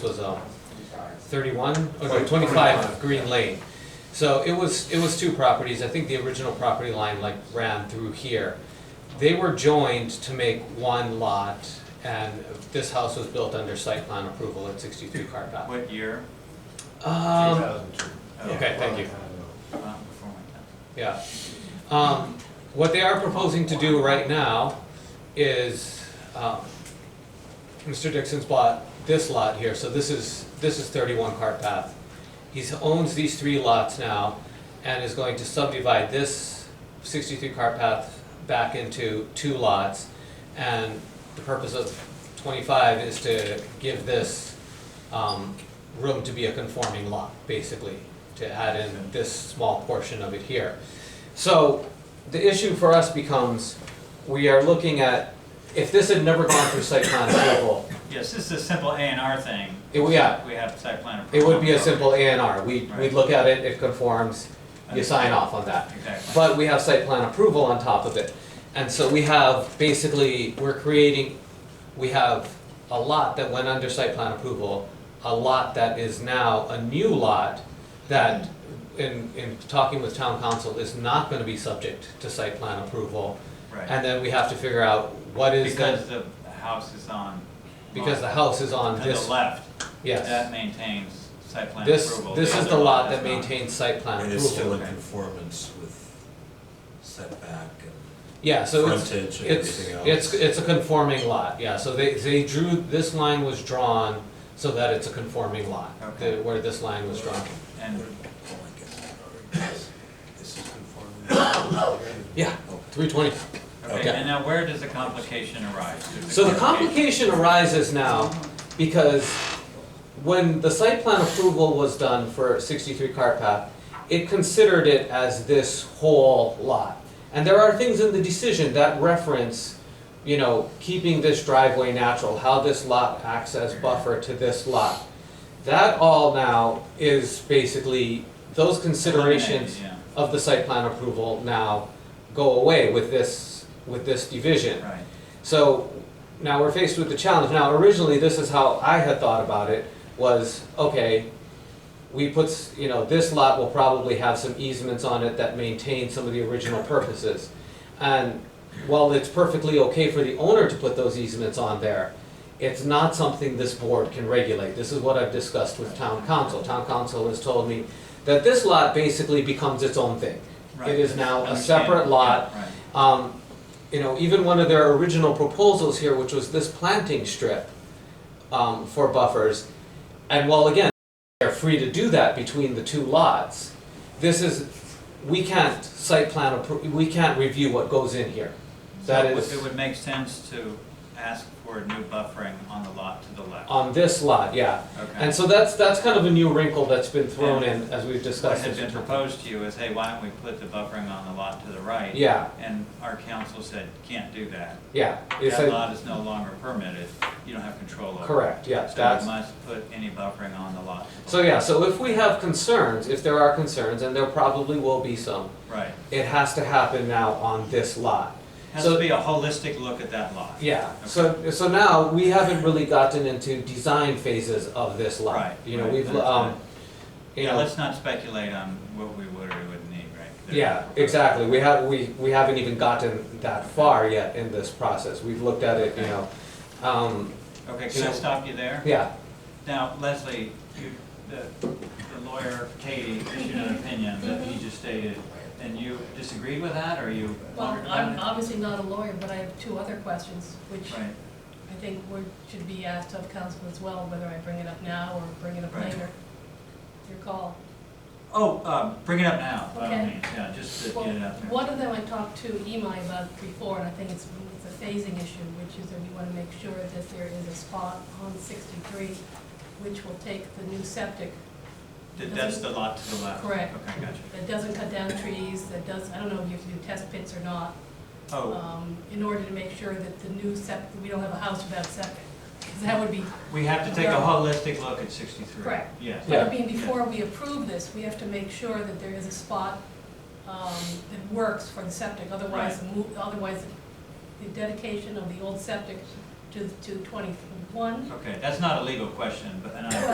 was um, 31, or no, 25 Green Lane. So it was, it was two properties. I think the original property line like ran through here. They were joined to make one lot, and this house was built under site plan approval at 63 Carpath. What year? Um, Okay, thank you. Uh, before my time. Yeah. Um, what they are proposing to do right now is, um, Mr. Dixon's bought this lot here, so this is, this is thirty-one Cart Path. He owns these three lots now and is going to subdivide this sixty-three Cart Path back into two lots. And the purpose of twenty-five is to give this, um, room to be a conforming lot, basically, to add in this small portion of it here. So the issue for us becomes, we are looking at, if this had never gone through site plan approval, Yes, this is a simple A and R thing. it, would- yeah, We have site plan it approval. would be a simple A and R. We, we'd look at it, it conforms, you sign off on that. Exactly. But we have site plan approval on top of it. And so we have, basically, we're creating, we have a lot that went under site plan approval, a lot that is now a new lot that, in, in talking with town council, is not gonna be subject to site plan approval. Right. And then we have to figure out what is Because that, the house is on. because the on- house is on To the this, left, that yes. maintains site plan This, approval. this The is the other lot does that not. maintains site plan And it's still approval. in conformance with setback and Yeah, so it's, frontage and It's, everything else. it's, it's a conforming lot, yeah, so they, they drew, this line was drawn so that it's a conforming lot, Okay. the- where this line was drawn. And Oh, I guess I already guessed. This is conforming. Yeah, Okay. three twenty. Okay, Okay. and now where does the complication arise? So the complication. complication arises now because when the site plan approval was done for sixty-three Cart Path, it considered it as this whole lot. And there are things in the decision that reference, you know, keeping this driveway natural, how this lot acts as buffer to this lot. That all now is basically, those considerations Eliminated, of the site plan approval now go away with this, with this division. yeah, Right, So now we're faced with the challenge. Now originally, this is how I had thought about it, was, okay, we put, s- you know, this lot will probably have some easements on it that maintain some of the original purposes. And while it's perfectly okay for the owner to put those easements on there, it's not something this board can regulate. This is what I've discussed with town council. Town council has told me that this lot basically becomes its own thing. right. It is now a Understand. separate lot, Yeah, Right. um, you know, even one of their original proposals here, which was this planting strip, um, for buffers, and while again, they're free to do that between the two lots, this is, we can't site plan appro, we can't review what goes in here. That So it would- is- It would make sense to ask for a new buffering on the lot to the left. On this lot, yeah, Okay. and so that's, that's kind of a new wrinkle that's been thrown in as we've What discussed had this. been proposed to you is, hey, why don't we put the buffering on the lot to the right? Yeah, And our council said, can't do that. yeah, it's That a, lot is no longer permitted, you don't have control over it. correct, yeah, that's. So you must put any buffering on the lot. to the So yeah, so if we have concerns, if there are concerns, and there probably will be some, left. Right. it has to happen now on this lot. Has So- to be a holistic look at that lot. Yeah, so, so now, we haven't really gotten into design phases of this lot. Right, You know, right, we've, that's um, right. you Yeah, know, let's not speculate on what we would or wouldn't need, right? There's yeah, no- exactly, we have, we, we haven't even gotten that far yet in this process, we've looked at it, you know. Um, Okay, can I So- stop you there? yeah, Now, Leslie, you, the, the lawyer, Katie, issued an opinion that he just stated, and you disagreed with that, or you Well, wondered I'm about obviously not a lawyer, but I have two other questions, it? which Right, I think would, should be asked of council as well, whether I bring it up now or bring it up Right. later. Your call. oh, um, bring it up now, by all Okay. means, yeah, just to Well, get it out there. one of them I talked to Imai about before, and I think it's, it's a phasing issue, which is that we wanna make sure that there is a spot on sixty-three, which will take the new septic, That- That's the lot to the left? Correct. Okay, gotcha. that doesn't cut down trees, that does, I don't know if you have to do test pits or not, Oh, um, in order to make sure that the new septic, we don't have a house without septic, because that would be we have to take a holistic look at sixty-three. Correct. Yes. Yeah. I mean, before we approve this, we have to make sure that there is a spot um, that works for the septic. Otherwise, the mo- otherwise the dedication of the old septic to, to twenty-one. Okay, that's not a legal question, but, and I